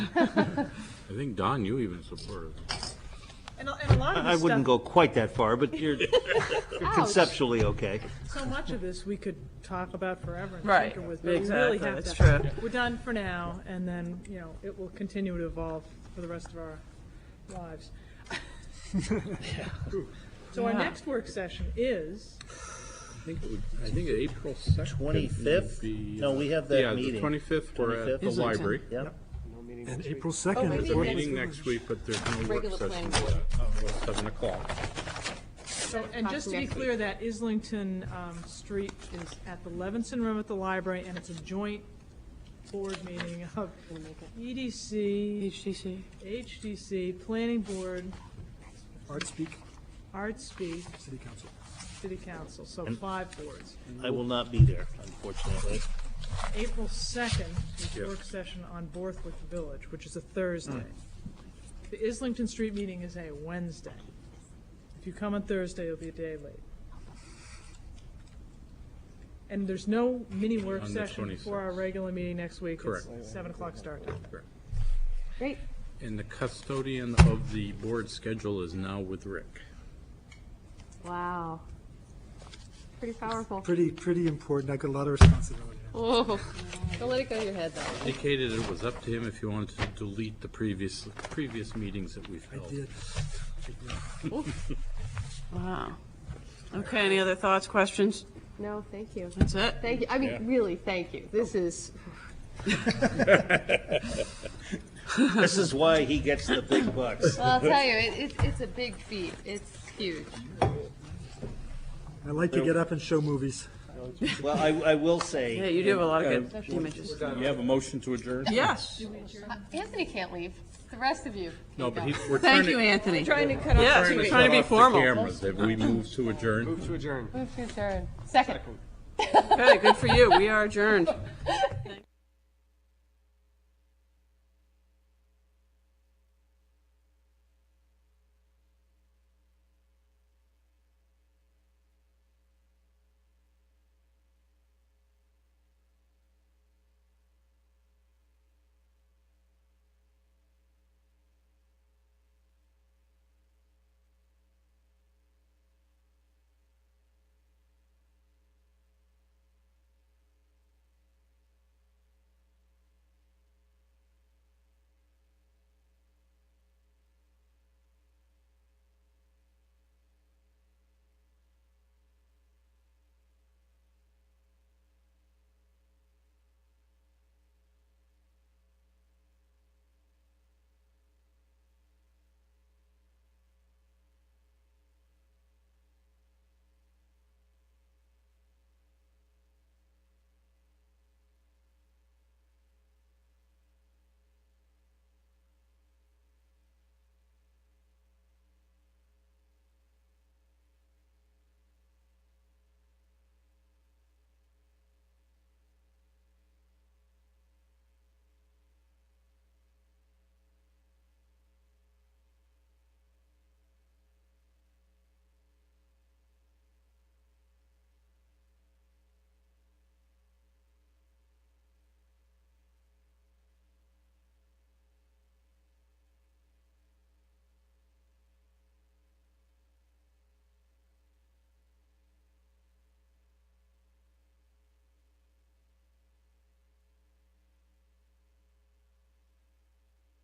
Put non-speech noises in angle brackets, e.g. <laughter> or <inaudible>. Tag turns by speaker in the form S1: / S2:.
S1: I think, Don, you even supported it.
S2: And a and a lot of
S3: I
S2: this
S3: wouldn't go
S2: stuff,
S3: quite that far, but you're conceptually okay.
S2: so much of this, we could talk about forever and
S4: Right.
S2: tinker with, but we really
S4: Exactly,
S2: have
S4: that's
S2: to.
S4: true.
S2: We're done for now, and then, you know, it will continue to evolve for the rest of our lives. <laughs>
S4: <laughs>
S2: So our
S4: Yeah.
S2: next work session is,
S1: I think, it would- I think April 2nd.
S5: 25th? No, we have that
S1: uh, Yeah, the
S5: meeting.
S1: 25th, we're at the
S5: 25th.
S1: library.
S5: Yep.
S6: And April
S1: There's a
S6: 2nd,
S1: meeting next week, but there's no work
S7: Regular
S1: session.
S7: planning board.
S1: for that. Uh, Seven o'clock.
S2: so, and just to be
S7: Next week.
S2: clear, that Islington um, Street is at the Levinson Room at the library, and it's a joint board meeting of E EDC,
S4: HTC.
S2: HDC, Planning Board,
S6: Art Speak,
S2: Artspeak,
S6: City Council.
S2: City Council, so five boards.
S5: I will not be there,
S1: <laughs>
S5: unfortunately.
S2: April 2nd is
S1: Yeah.
S2: work session on Borthwick Village, which is a Thursday. The Islington Street meeting is a Wednesday. If you come on Thursday, you'll be a day late. And there's no mini work
S1: On the
S2: session for our
S1: 26th.
S2: regular meeting next week.
S1: Correct.
S2: It's 7 o'clock start time.
S7: Great.
S1: And the custodian of the board schedule is now with Rick.
S7: Wow. Pretty powerful.
S6: Pretty, pretty important. I got a lot of responsibility.
S7: Whoa. Don't let it go to your head, though.
S1: Indicated it was up to him if he wanted to delete the previous, previous meetings that we've
S6: I
S1: held.
S6: did.
S4: Wow. Okay, any other thoughts, questions?
S7: No, thank you.
S4: That's it?
S7: Thank you. I mean, really, thank you. This is,
S5: This is why he gets the
S1: <laughs>
S5: big bucks.
S7: well, I'll tell you, it, it, it's a big feat. It's huge.
S6: I like to get up and show movies.
S5: Well, I, I will
S4: Yeah,
S5: say,
S4: you do have a lot of good images.
S1: You have a motion to adjourn?
S4: Yes,
S7: Anthony can't leave. The rest of you.
S1: No, but he, we're trying
S4: thank
S1: to.
S4: you, Anthony.
S7: Trying to cut off.
S4: Yes,
S1: turn
S4: we're
S1: this
S4: trying to be
S1: off the
S4: formal.
S1: Cameras, have we moved to adjourn?
S8: Move to adjourn.
S7: Move to adjourn. Second.
S4: Okay, good for you, we are adjourned.